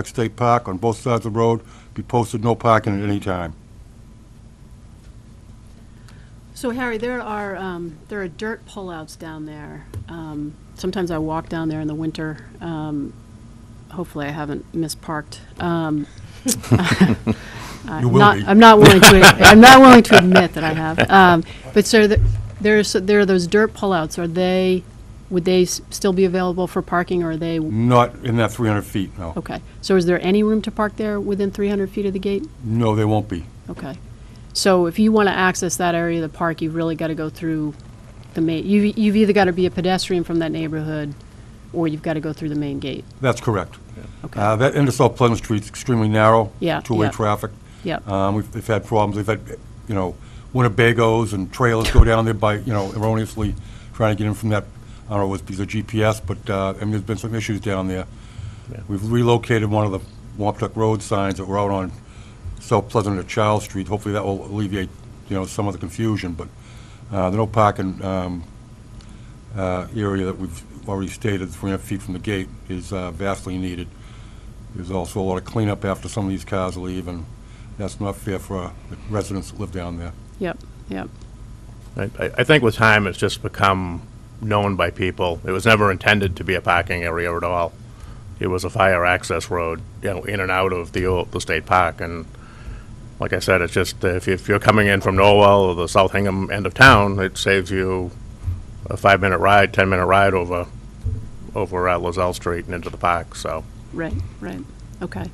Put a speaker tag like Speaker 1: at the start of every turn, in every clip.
Speaker 1: Park State Park on both sides of the road, be posted no parking at any time.
Speaker 2: So Harry, there are, um, there are dirt pullouts down there. Um, Sometimes I walk down there in the winter. Um, Hopefully I haven't misparked. Um,
Speaker 1: You
Speaker 2: I'm
Speaker 1: will
Speaker 2: Uh, not,
Speaker 1: be.
Speaker 2: I'm not willing to, I'm not willing to admit that I have. Um, But so the- there's, there are those dirt pullouts. Are they, would they s- still be available for parking or are they,
Speaker 1: Not in that 300 feet, no.
Speaker 2: okay. So is there any room to park there within 300 feet of the gate?
Speaker 1: No, they won't be.
Speaker 2: Okay. So if you want to access that area of the park, you've really got to go through the main, you've, you've either got to be a pedestrian from that neighborhood, or you've got to go through the main gate.
Speaker 1: That's correct.
Speaker 2: Okay.
Speaker 1: Uh, That Ingersoll Pleasant Street's extremely narrow.
Speaker 2: Yeah,
Speaker 1: Two-way
Speaker 2: yeah.
Speaker 1: traffic.
Speaker 2: Yep.
Speaker 1: Um, We've they've had problems, they've had, you know, Winnebagos and trailers go down there by, you know, erroneously trying to get in from that, I don't know, was because of GPS, but, uh, I mean, there's been some issues down there. We've relocated one of the Wampatuck Road signs that were out on South Pleasant and Charles Street. Hopefully that will alleviate, you know, some of the confusion, but uh, the no parking um, uh, area that we've already stated, 300 feet from the gate, is uh, vastly needed. There's also a lot of cleanup after some of these cars leave, and that's not fair for uh, the residents that live down there.
Speaker 2: Yep, yep.
Speaker 3: I, I I think with time, it's just become known by people. It was never intended to be a parking area at all. It was a fire access road, you know, in and out of the, old- the state park. And like I said, it's just, uh, if you- if you're coming in from Norwell or the South Hingham end of town, it saves you a five-minute ride, 10-minute ride over, over uh, Lozelle Street and into the park, so.
Speaker 2: Right, right. Okay.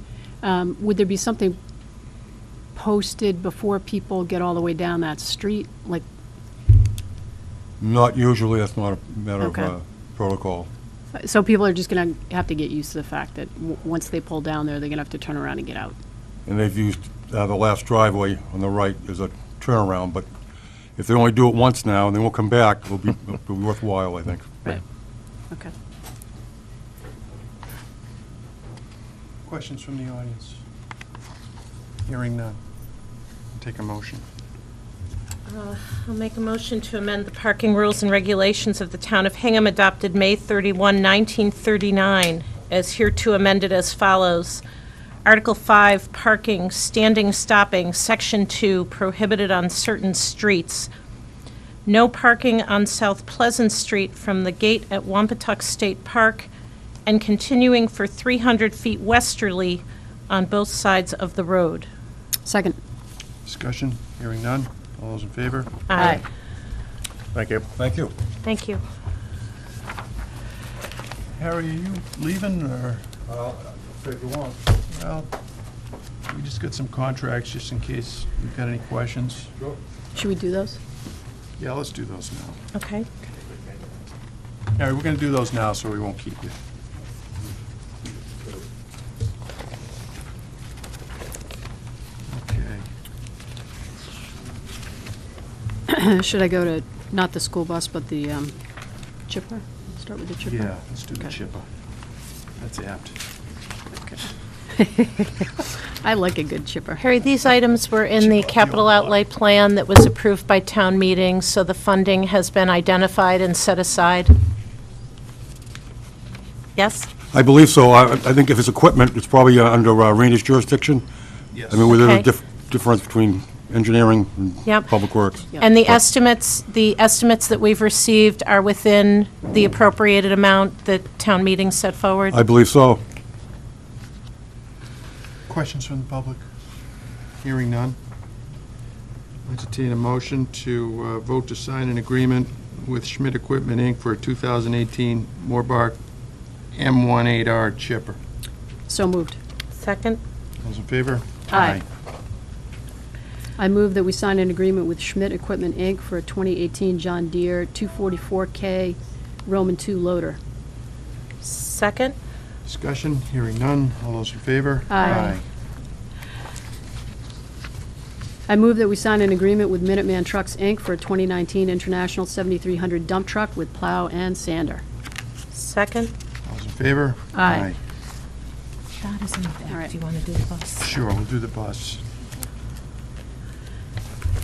Speaker 2: Um, would there be something posted before people get all the way down that street? Like,
Speaker 1: Not usually, that's not a matter of
Speaker 2: Okay.
Speaker 1: uh, protocol.
Speaker 2: so people are just going to have to get used to the fact that w- once they pull down there, they're going to have to turn around and get out.
Speaker 1: And they've used, uh, the last driveway on the right as a turnaround, but if they only do it once now and they won't come back, it'll be it'll be worthwhile, I think.
Speaker 2: Right. Okay.
Speaker 4: Questions from the audience? Hearing none. Take a motion.
Speaker 5: I'll make a motion to amend the parking rules and regulations of the Town of Hingham adopted May 31, 1939, as hereto amended as follows. Article 5, Parking, Standing, Stopping, Section 2, Prohibited on Certain Streets. No parking on South Pleasant Street from the gate at Wampatuck State Park and continuing for 300 feet westerly on both sides of the road.
Speaker 2: Second.
Speaker 4: Discussion? Hearing none. All those in favor?
Speaker 5: Aye.
Speaker 3: Thank you.
Speaker 1: Thank you.
Speaker 5: Thank you.
Speaker 4: Harry, are you leaving, or,
Speaker 1: If you want,
Speaker 4: well, we just got some contracts, just in case you've got any questions.
Speaker 2: Should we do those?
Speaker 4: Yeah, let's do those now.
Speaker 5: Okay.
Speaker 4: Harry, we're gonna do those now, so we won't keep you. Okay.
Speaker 2: Should I go to, not the school bus, but the um, chipper? Start with the chipper?
Speaker 4: Yeah, let's do the
Speaker 2: Okay.
Speaker 4: chipper. That's apt.
Speaker 2: I like a good chipper.
Speaker 5: Harry, these items were in the capital outlay plan that was approved by town meeting, so the funding has been identified and set aside. Yes?
Speaker 1: I believe so. I, I think if it's equipment, it's probably uh, under uh, Randy's jurisdiction.
Speaker 4: Yes.
Speaker 1: I mean, within the
Speaker 5: Okay.
Speaker 1: dif- difference between engineering and
Speaker 5: Yep.
Speaker 1: public works.
Speaker 5: And the estimates, the estimates that we've received are within the appropriated amount that town meeting set forward?
Speaker 1: I believe so.
Speaker 4: Questions from the public? Hearing none. Entertain a motion to uh, vote to sign an agreement with Schmidt Equipment, Inc. for a 2018 Morbark M18R chipper.
Speaker 2: So moved.
Speaker 5: Second?
Speaker 4: Those in favor?
Speaker 2: Aye. I move that we sign an agreement with Schmidt Equipment, Inc. for a 2018 John Deere 244K Roman II loader.
Speaker 5: Second?
Speaker 4: Discussion, hearing none. All those in favor?
Speaker 2: Aye. I move that we sign an agreement with Minuteman Trucks, Inc. for a 2019 International 7300 dump truck with plow and sander.
Speaker 5: Second?
Speaker 4: All those in favor?
Speaker 2: Aye.
Speaker 5: That is in the
Speaker 2: All right.
Speaker 5: back. Do you want to do the bus?
Speaker 4: Sure, we'll do the bus.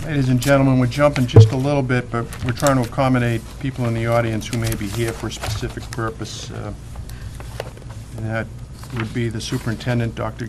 Speaker 4: Ladies and gentlemen, we're jumping just a little bit, but we're trying to accommodate people in the audience who may be here for a specific purpose. uh, And that would be the superintendent, Dr.